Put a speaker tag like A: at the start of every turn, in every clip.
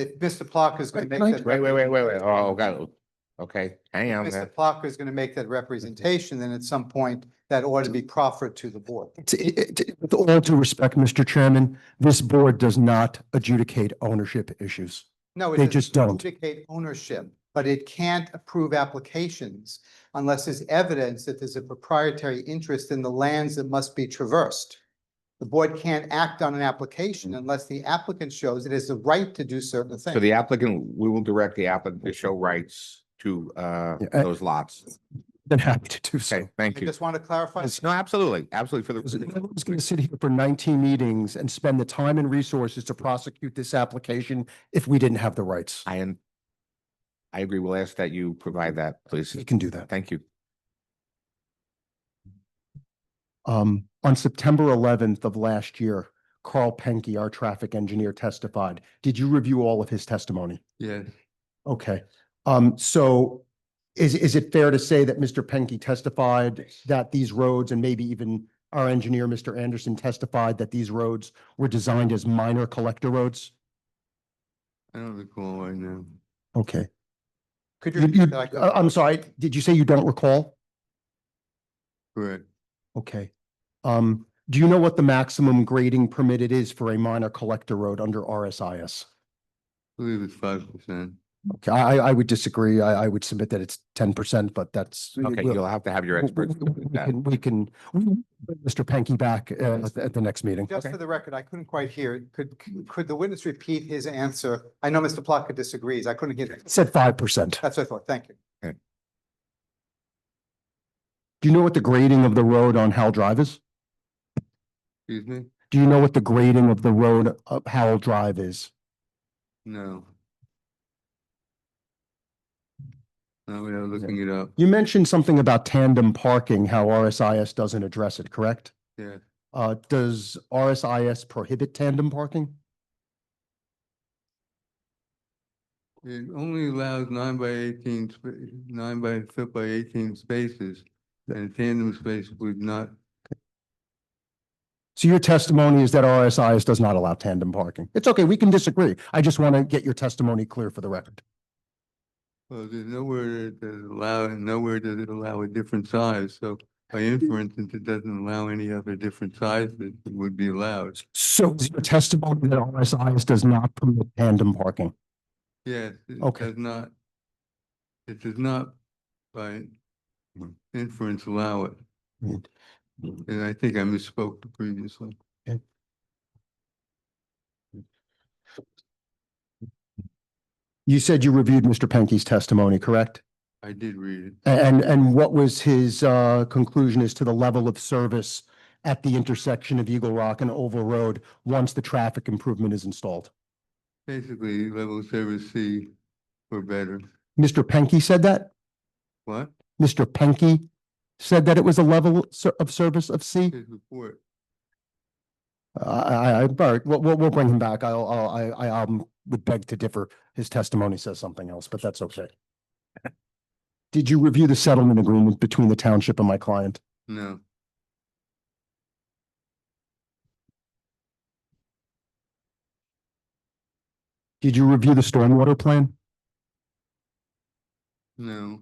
A: if Mr. Plucker is going to make that.
B: Wait, wait, wait, wait, wait. Oh, got it. Okay, hang on. man.
A: Mr. Plucker is going to make that representation, then at some point, that ought to be proffered to the board.
C: It's- it- it- With all due respect, Mr. Chairman, this board does not adjudicate ownership issues.
A: No, it
C: They
A: doesn't
C: just don't.
A: Indicate ownership, but it can't approve applications unless there's evidence that there's a proprietary interest in the lands that must be traversed. The board can't act on an
C: Mm.
A: application unless the applicant shows it has the right to do certain things.
B: So the applicant, we will direct the applicant to show rights to uh
C: Yeah, uh,
B: those lots.
C: Been happy to do so.
B: Okay, thank
A: I
B: you.
A: just want to clarify.
B: No, absolutely, absolutely for
C: Because if
B: the.
C: Everyone's going to sit here for 19 meetings and spend the time and resources to prosecute this application if we didn't have the rights.
B: I am. I agree. We'll ask that you provide that, please.
C: We can do that.
B: Thank you.
C: Um, on September eleventh of last year, Carl Penke, our traffic engineer testified. Did you review all of his testimony?
D: Yeah,
C: Okay, um, so is, is it fair to say that Mr. Penke testified that these roads and maybe even our engineer, Mr. Anderson testified that these roads were designed as minor collector roads?
D: I don't recall right now.
C: Okay,
A: Could you?
C: you,
A: repeat
C: you,
A: that? I couldn't-
C: I- I'm sorry, did you say you don't recall?
D: Correct.
C: Okay, um, do you know what the maximum grading permitted is for a minor collector road under RSIS?
D: I believe it's five percent.
C: Okay, I, I I would disagree. I, I would submit that it's ten percent, but that's. we-
B: Okay,
C: we'll-
B: you'll have to have your
C: we-
B: experts.
C: we- We
B: with that.
C: can, we can, we can bring Mr. Pankey back uh, at, the- at the next meeting.
A: Just for the record, I couldn't quite hear. it. Could, could the witness repeat his answer? I know Mr. Plucker disagrees. I couldn't hear.
C: It
A: that.
C: Said five percent.
A: That's what I thought. Thank you.
C: Do you know what the grading of the road on Howell Drive is?
D: Excuse me?
C: Do you know what the grading of the road up Howell Drive is?
D: No. Now we are looking it up.
C: You mentioned something about tandem parking, how RSIS doesn't address it, correct?
D: Yeah,
C: Uh, does RSIS prohibit tandem parking?
D: it only allows nine by eighteen, sp- nine by foot by eighteen spaces. And tandem space would not,
C: So your testimony is that RSIS does not allow tandem parking. It's okay, we can disagree. I just want to get your testimony clear for the record.
D: well, there's nowhere that it allow, and nowhere does it allow a different size. So by inference, since it doesn't allow any other different size that would be allowed.
C: So is your testimony that RSIS does not permit tandem parking?
D: Yes, it
C: Okay.
D: does not. It does not by inference allow it.
C: Mm.
D: And I think I misspoke previously.
C: You said you reviewed Mr. Penke's testimony, correct?
D: I did read it.
C: A- And, and what was his uh, conclusion as to the level of service at the intersection of Eagle Rock and Oval Road once the traffic improvement is installed?
D: Basically, level service C or better.
C: Mr. Penke said that?
D: What?
C: Mr. Penke said that it was a level ser- of service of C?
D: His report.
C: I, I, I, all right, we'll, we'll, we'll bring him back. I'll, I'll, I, I, um, would beg to differ. His testimony says something else, but that's okay. Did you review the settlement agreement between the township and my client?
D: No,
C: Did you review the stormwater plan?
D: no,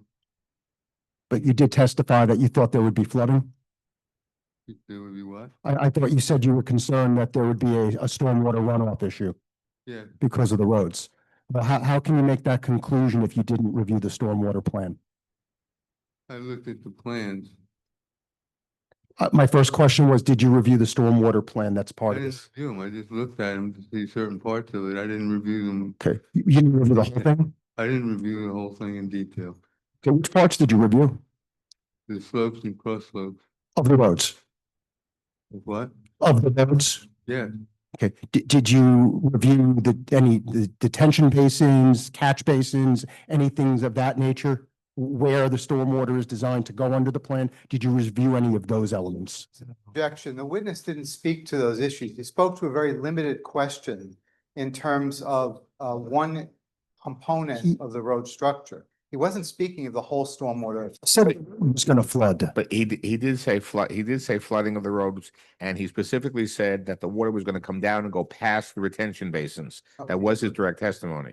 C: But you did testify that you thought there would be flooding?
D: it- there would be what?
C: I, I thought you said you were concerned that there would be a, a stormwater runoff issue
D: Yeah,
C: because of the roads. But how, how can you make that conclusion if you didn't review the stormwater plan?
D: I looked at the plans.
C: Uh, my first question was, did you review the stormwater plan that's
D: I
C: part of
D: didn't
C: this?
D: review them. I just looked at them to see certain parts of it. I didn't review them.
C: Okay, you you didn't review the whole thing?
D: I didn't review the whole thing in detail.
C: Okay, which parts did you review
D: The slopes and cross slopes.
C: of the roads?
D: Of What?
C: Of the roads?
D: Yeah,
C: Okay, did, did you review the, any the detention basins, catch basins, any things of that nature? Where the stormwater is designed to go under the plan? Did you review any of those elements?
A: objection. The witness didn't speak to those issues. He spoke to a very limited question in terms of uh, one
C: He-
A: component of the road structure. He wasn't speaking of the whole stormwater.
C: Said it was gonna flood.
B: But he, d- he did say flood, he did say flooding of the roads, and he specifically said that the water was gonna come down and go past the retention basins. That was his direct testimony.